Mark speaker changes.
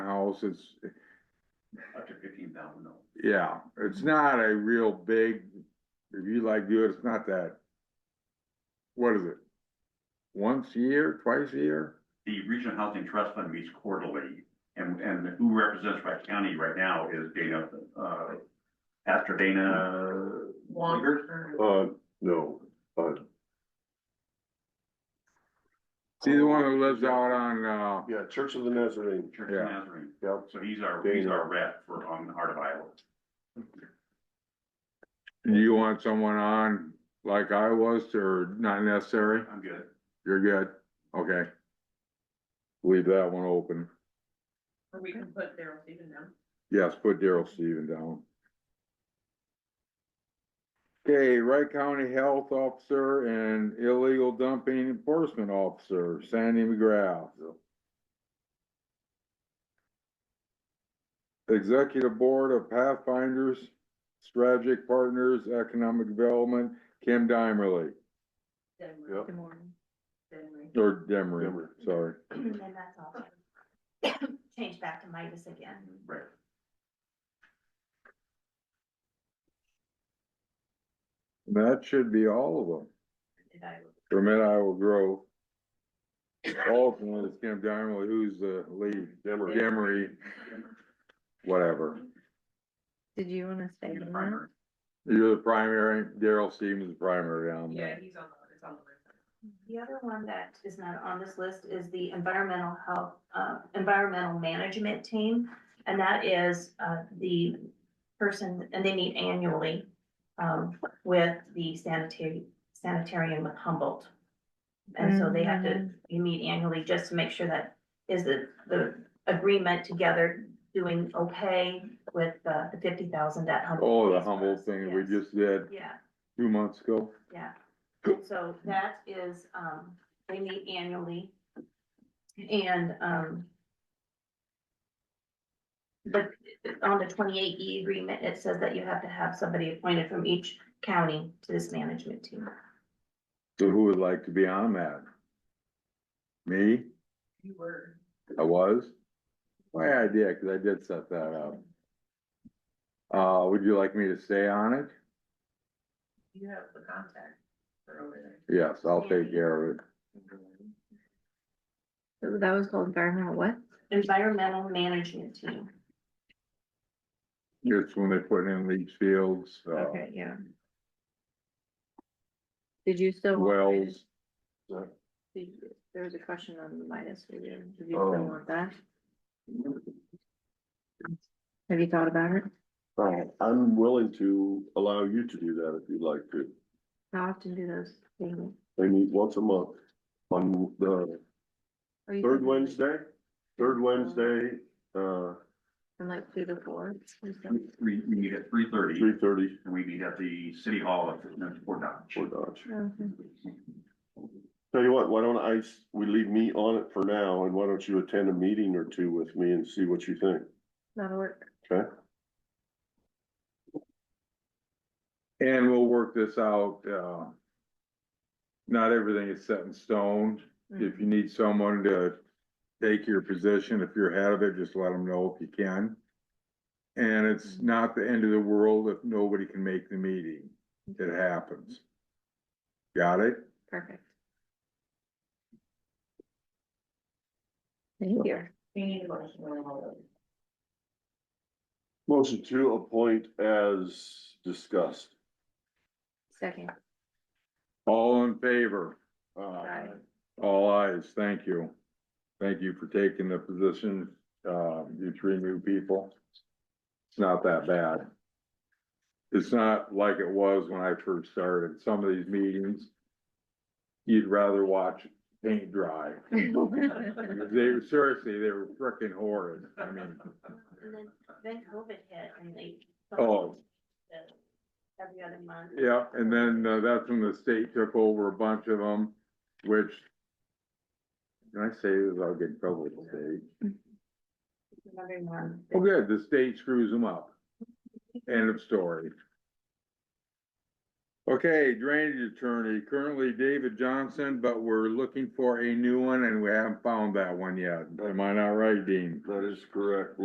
Speaker 1: house, it's,
Speaker 2: up to fifteen thousand dollars.
Speaker 1: yeah, it's not a real big, if you like do it, it's not that. What is it? Once a year, twice a year?
Speaker 2: The Regional Housing Trust Fund meets quarterly, and, and who represents Wright County right now is Dana, uh, Pastor Dana. Longer.
Speaker 3: Uh, no, uh,
Speaker 1: See the one who lives out on, uh,
Speaker 3: yeah, Church of the Nazarene,
Speaker 2: Church
Speaker 1: Yeah.
Speaker 2: of Nazarene,
Speaker 3: yeah,
Speaker 2: so he's our, he's our rep for, on the Heart of Iowa.
Speaker 1: do you want someone on like I was or not necessary?
Speaker 2: I'm good.
Speaker 1: You're good? Okay. Leave that one open.
Speaker 4: Or we can put Daryl Steven down.
Speaker 1: Yes, put Daryl Steven down. Okay, Wright County Health Officer and Illegal Dumping Enforcement Officer, Sandy McGrath. Executive Board of Pathfinders, Strategic Partners, Economic Development, Kim Dimerly,
Speaker 3: Yep.
Speaker 4: Denver.
Speaker 5: Good morning.
Speaker 4: Denver.
Speaker 1: or Demery,
Speaker 3: Demery.
Speaker 1: sorry.
Speaker 5: And then that's all. Change back to Midas again.
Speaker 2: Right.
Speaker 1: That should be all of them.
Speaker 5: Did I-
Speaker 1: From it, I will grow. Ultimately, it's Kim Dimerly, who's the lead,
Speaker 3: Demery.
Speaker 1: Demery, whatever.
Speaker 5: Did you wanna stay
Speaker 2: You're the
Speaker 5: on that?
Speaker 2: primary.
Speaker 1: You're the primary, Daryl Stevens is primary on
Speaker 4: Yeah,
Speaker 1: that.
Speaker 4: he's on the, it's on the list.
Speaker 5: The other one that is not on this list is the environmental health, uh, environmental management team. And that is, uh, the person, and they meet annually, um, with the sanitary, sanitarian with Humboldt. And so they have to, you meet annually just to make sure that is the, the agreement together doing okay with uh, the fifty thousand that Humboldt.
Speaker 1: Oh, the
Speaker 5: pays for
Speaker 1: humble
Speaker 5: us.
Speaker 1: thing we
Speaker 5: Yes.
Speaker 1: just did
Speaker 5: Yeah,
Speaker 1: two months ago.
Speaker 5: yeah. And So that is, um, they meet annually. And, um, but on the twenty-eight E agreement, it says that you have to have somebody appointed from each county to this management team.
Speaker 1: So who would like to be on that? Me?
Speaker 4: You were.
Speaker 1: I was? My idea, cause I did set that up. Uh, would you like me to stay on it?
Speaker 4: You have the contact for over there.
Speaker 1: Yes, I'll take care of it.
Speaker 6: That was called environmental what?
Speaker 5: Environmental management team.
Speaker 1: It's when they put in leach fields, uh,
Speaker 6: Okay, yeah. Did you still? want Midas?
Speaker 1: wells.
Speaker 6: Did you- There was a question on the Midas, did you did you
Speaker 3: Oh.
Speaker 6: still want that? Have you thought about it?
Speaker 3: Uh, I'm willing to allow you to do that if you'd like to.
Speaker 6: How often do those things?
Speaker 3: They meet once a month on the
Speaker 6: are you
Speaker 3: third
Speaker 6: thinking like-
Speaker 3: Wednesday, third Wednesday, uh,
Speaker 6: From like two to four? or something?
Speaker 1: Mm.
Speaker 2: We, we meet at three thirty,
Speaker 3: three thirty
Speaker 2: and we meet at the City Hall at Fort Dodge.
Speaker 3: for Dodge.
Speaker 6: Okay.
Speaker 3: Tell you what, why don't I, s- we leave me on it for now, and why don't you attend a meeting or two with me and see what you think,
Speaker 6: That'll work.
Speaker 3: okay?
Speaker 1: And we'll work this out, uh. Not everything is set in stone.
Speaker 6: Mm.
Speaker 1: If
Speaker 5: Mm.
Speaker 1: you need someone to take your position, if you're ahead of it, just let them know if you can. And it's not the end of the world if nobody can make the meeting. It happens. Got it?
Speaker 6: Perfect. Thank you.
Speaker 4: We need a motion on all of them.
Speaker 3: Motion to appoint as discussed.
Speaker 6: Second.
Speaker 1: All in favor?
Speaker 3: Uh,
Speaker 6: Aye.
Speaker 1: All eyes. Thank you. Thank you for taking the position, uh, you three new people. It's not that bad. It's not like it was when I first started. Some of these meetings, you'd rather watch paint dry. They were, seriously, they were frickin' horrid. I mean,
Speaker 5: And then, then COVID hit and they.
Speaker 1: Oh.
Speaker 5: Every other month.
Speaker 1: yeah, and then uh, that's when the state took over a bunch of them, which can I say this? I'll get in trouble with the state.
Speaker 5: Another month.
Speaker 1: Well, good, the state screws them up. End of story. Okay, drainage attorney, currently David Johnson, but we're looking for a new one and we haven't found that one yet. Am I not right, Dean?
Speaker 3: That is correct.